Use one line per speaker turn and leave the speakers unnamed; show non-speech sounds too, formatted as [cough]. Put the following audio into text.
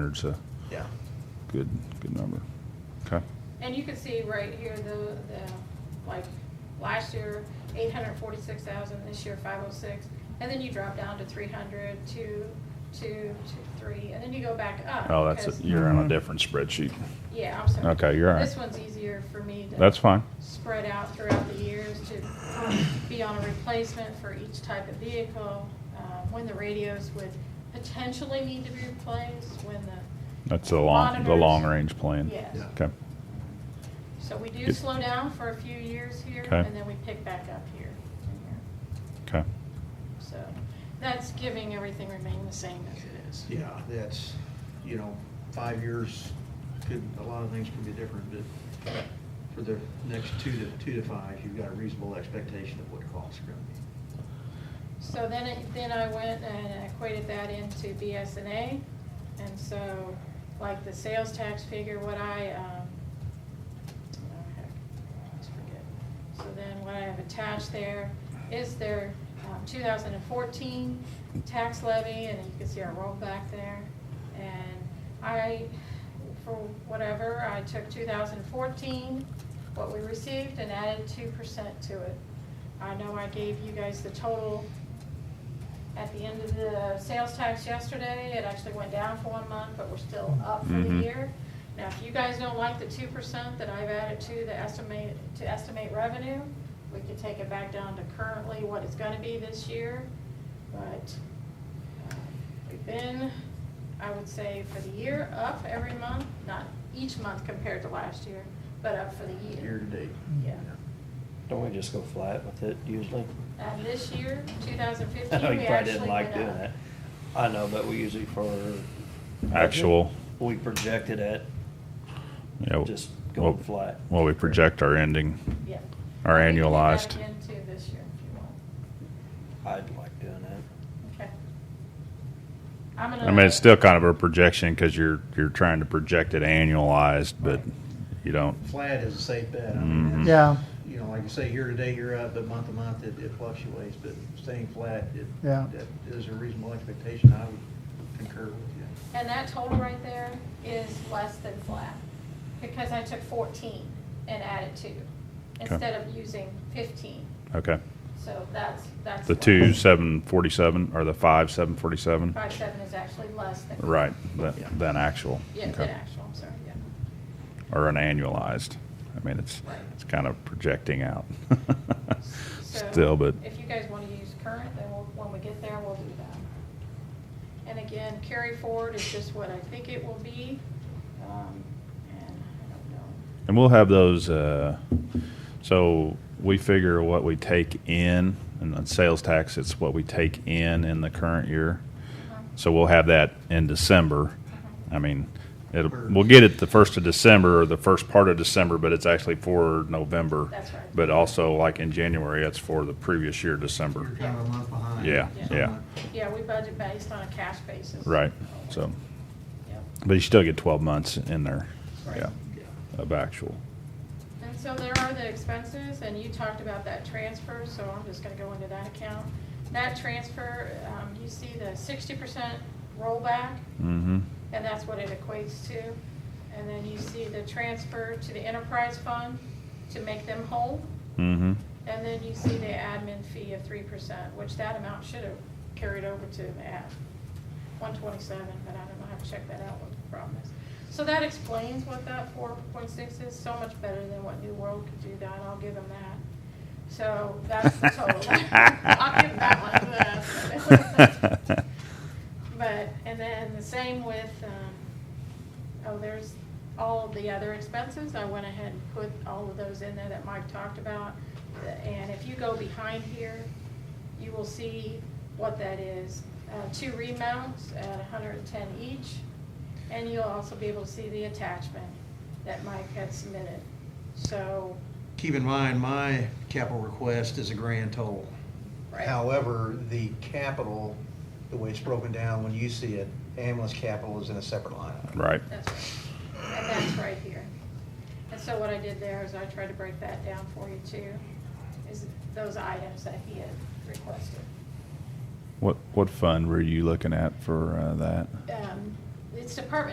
hundred's a
Yeah.
good, good number. Okay.
And you can see right here, the, the, like, last year, eight hundred forty-six thousand, this year, five oh six. And then you drop down to three hundred, two, two, two, three, and then you go back up.
Oh, that's, it.
because-
you're on a
Mhm.
Mm-hmm.
different spreadsheet.
Yeah, I'm sorry.
Okay, you're all right.
This one's easier for me to.
That's fine.
Spread out throughout the years to be on a replacement for each type of vehicle, uh, when the radios would potentially need to be replaced, when the,
That's the long, the
Monitors.
long-range plan.
Yes. Yeah.
Okay.
so we do
Good.
slow down for a few years here,
Okay.
and then we pick back up here and here.
Okay.
So that's giving everything remain the same as it is.
Yeah, that's, you know, five years, could, a lot of things can be different, but for the next two to, two to five, you've got a reasonable expectation of what costs are gonna be.
So then, it- then I went and equated that into BSNA. And so, like the sales tax figure, what I, um, oh heck, I always forget. So then what I have attached there is their um, 2014 tax levy, and you can see our rollback there. And I, for whatever, I took 2014, what we received, and added 2% to it. I know I gave you guys the total at the end of the sales tax yesterday. It actually went down for one month, but we're still up for the
Mm-hmm.
Mhm.
year. Now, if you guys don't like the two percent that I've added to the estimate, to estimate revenue, we could take it back down to currently what it's gonna be this year. But um, we've been, I would say, for the year, up every month, not each month compared to last year, but up for the year.
Year to date.
Yeah.
Don't we just go flat with it usually?
And this year, two
[laughs]
thousand
Oh, You
fifteen, we
probably
actually
didn't like
went
doing
up.
that. I know, but we usually for. budget,
Actual.
We projected it.
Yeah. w-
Just going
well-
flat.
Well, we project our ending,
Yeah.
our
We can do that
annualized.
Again, too, this year, if you want.
I'd like doing that.
Okay. I'm gonna.
I mean, it's still kind of a projection because you're, you're trying to project it annualized, but you don't,
Flat is a safe bet. I
Mhm.
mean, that's-
Yeah,
You know, like you say, year to date, you're up, but month to month, it, it fluctuates, but staying flat, it,
Yeah.
that is a reasonable expectation. I would concur with you.
And that total right there is less than flat, because I took fourteen and added two,
Okay.
instead of using fifteen.
okay.
So that's, that's.
The
less.
two seven forty-seven or the five seven forty-seven?
Five seven is actually less than.
Right, than,
Yeah.
than actual.
Yeah,
Okay.
than actual, I'm sorry, yeah.
Or an annualized. I mean, it's,
Right.
it's kind of projecting out.
So
Still, but,
If you guys want to use current, then we'll, when we get there, we'll do that. And again, carry forward is just what I think it will be, um, and I don't know.
and we'll have those, uh, so we figure what we take in, and on sales tax, it's what we take in in the current year.
Uh-huh.
So we'll have that in December. I mean, it'll,
Or-
we'll get it the first of December or the first part of December, but it's actually for November.
That's right.
But also like in January, it's for the previous year, December.
You're kind of a month behind.
Yeah,
Yeah.
yeah,
Yeah, we budget based on a cash basis.
right. So,
Yep.
but you still get twelve months in there,
Right.
yeah,
Yeah.
of actual.
And so there are the expenses, and you talked about that transfer, so I'm just gonna go into that account. That transfer, um, you see the sixty percent rollback,
Mm-hmm.
and that's what it equates to. And then you see the transfer to the enterprise fund to make them whole.
Mm-hmm.
And then you see the admin fee of three percent, which that amount should have carried over to the ad, one twenty-seven, but I don't know how to check that out, what the problem is. So that explains what that four point six is, so much better than what New World could do that, I'll give them that. So that's
[laughs]
the total. [laughs] I'll give that one to them.
[laughs]
But, and then the same with, um, oh, there's all of the other expenses. I went ahead and put all of those in there that Mike talked about. And if you go behind here, you will see what that is. Uh, two remounts at hundred and ten each. And you'll also be able to see the attachment that Mike had submitted. So,
Keep in mind, my capital request is a grand total.
Right.
However, the capital, the way it's broken down, when you see it, ambulance capital is in a separate line. item.
Right.
That's right. And that's right here. And so what I did there is I tried to break that down for you too, is those items that he had requested.
What, what fund were you looking at for, uh, that?
Um, It's Department